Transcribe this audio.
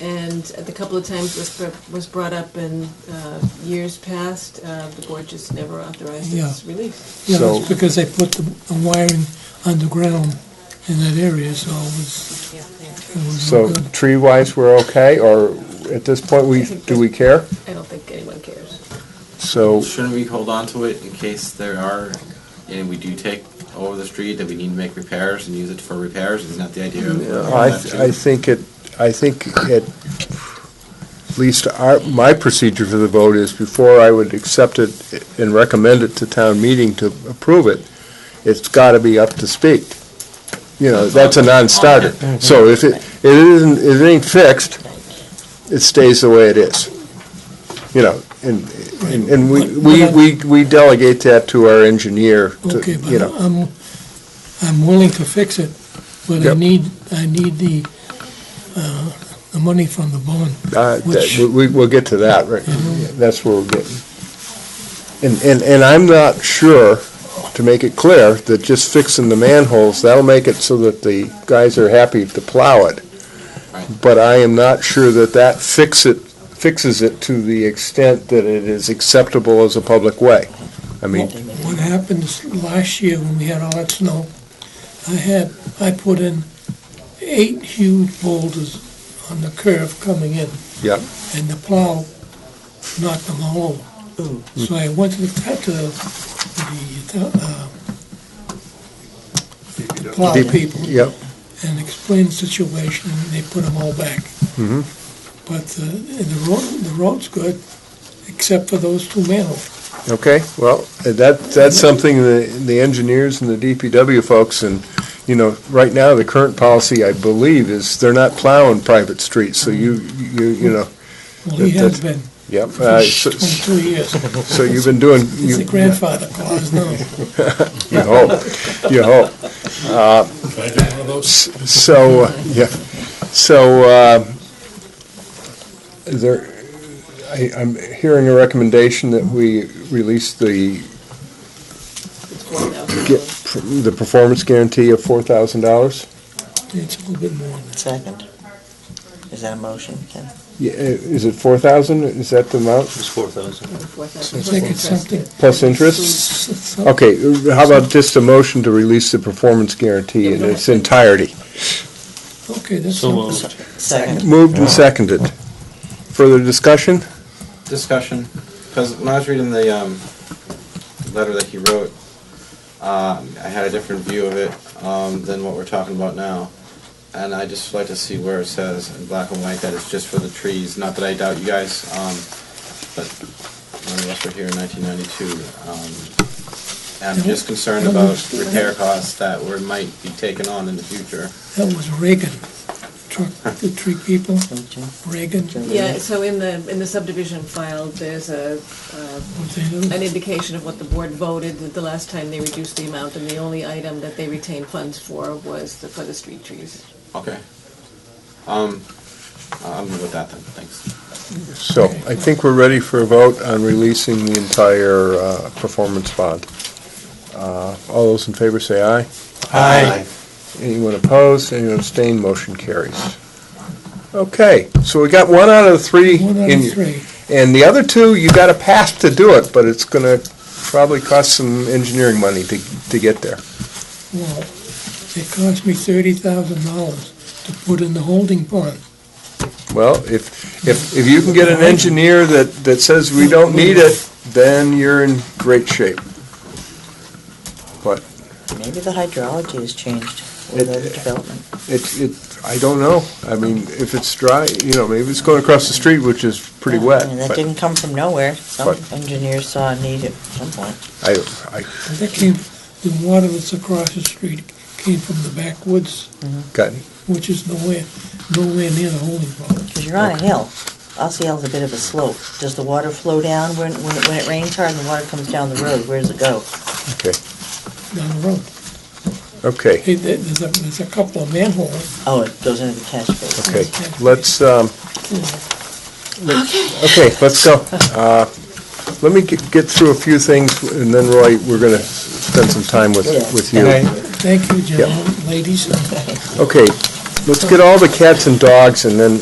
And the couple of times was, br- was brought up in uh, years past, uh, the board just never authorized its release. Yeah, So- that's because they put the the wiring underground in that area, so it was, it was no So good. tree-wise, we're okay, or at this point, we, do we care? I don't think anyone cares. So, Shouldn't we hold on to it in case there are, and we do take over the street, that we need to make repairs and use it for repairs? Isn't that the idea? of- I, I think it, I think it, at least our, my procedure for the vote is before I would accept it and recommend it to town meeting to approve it, it's gotta be up to speed. You know, that's a non-starter. So if it, it isn't, if it ain't fixed, it stays the way it is. You know, and, and- and we, we, we we delegate that to our engineer, Okay, to, but you know. I'm, I'm willing to fix it, but I Yep. need, I need the, uh, the money from the bond. Uh, that- Which- we- we- We'll get to that, right, that's where we're getting. And, and, and I'm not sure, to make it clear, that just fixing the manholes, that'll make it so that the guys are happy to plow it. Right. But I am not sure that that fix it, fixes it to the extent that it is acceptable as a public way. I mean, What happened is last year when we had all that snow, I had, I put in eight huge boulders on the curve coming in. yeah, and the plow knocked them all over. So I went to the, to the, uh, plow people yeah, and explained the situation, and they put them all back. Mm-hmm. But the, the road, the road's good, except for those two manholes. okay, well, that, that's something the, the engineers and the DPW folks and you know, right now, the current policy, I believe, is they're not plowing private streets, so you, you, you know, Well, he That- has that- been yep. uh, for So twenty-two years. so you've been doing, It's you a grandfather clause now. you hope, you hope. Uh, s- So, uh, yeah, so, uh, there, I, I'm hearing a recommendation that we release the, It's one of get, them. the performance guarantee of four thousand dollars? It's a little bit more than that. Second. Is that a motion, Ken? Yeah, uh, is it four thousand? Is that the amount, It's four thousand. I think it's something, plus interest? something Okay, how about just a motion to release the performance guarantee in its entirety? Okay, that's So something. moved. Second. Moved and seconded. Further discussion? Discussion, because when I was reading the, um, letter that he wrote, um, I had a different view of it, um, than what we're talking about now. And I just like to see where it says in black and white that it's just for the trees, not that I doubt you guys, um, but none of us were here in nineteen ninety-two. Um, and I'm just concerned about repair costs that were, might be taken on in the future. That was Reagan, truck, the tree people, Okay. Reagan, Yeah, so in the, in the subdivision file, there's a, uh, what they do. an indication of what the board voted the last time they reduced the amount, and the only item that they retained funds for was the, for the street trees. Okay. Um, I'm good with that then, thanks. So I think we're ready for a vote on releasing the entire uh, performance bond. Uh, All those in favor say aye. Aye. Anyone opposed, anyone abstained, motion carries. Okay, so we got one out of the three. One out in- of three. And the other two, you got a pass to do it, but it's going to probably cost some engineering money to to get there. Well, it cost me thirty thousand dollars to put in the holding pond. Well, if, if, if you can get an engineer that, that says we don't need it, then you're in great shape. But Maybe the hydrology has changed with the development. it, it, I don't know. I mean, if it's dry, you know, maybe it's going across the street, which is pretty Yeah, wet, I mean, That but didn't come from nowhere. Some But- engineers saw a need at some point. I, I And That came, the water that's across the street came from the backwoods, got, which is nowhere, nowhere near the holding pond. Because you're on a hill. Ossieola's a bit of a slope. Does the water flow down when, when it- when it rains hard and the water comes down the road? Where does it go? okay, Down the road. okay, Hey, there- there's a, there's a couple of manholes. Oh, it goes into the catch basin. okay. Let's, um, you know. Okay, let's go. Uh, Let me get get through a few things, and then Roy, we're going to spend some time with, with you. Thank you, gentlemen, ladies. Okay, let's get all the cats and dogs, and then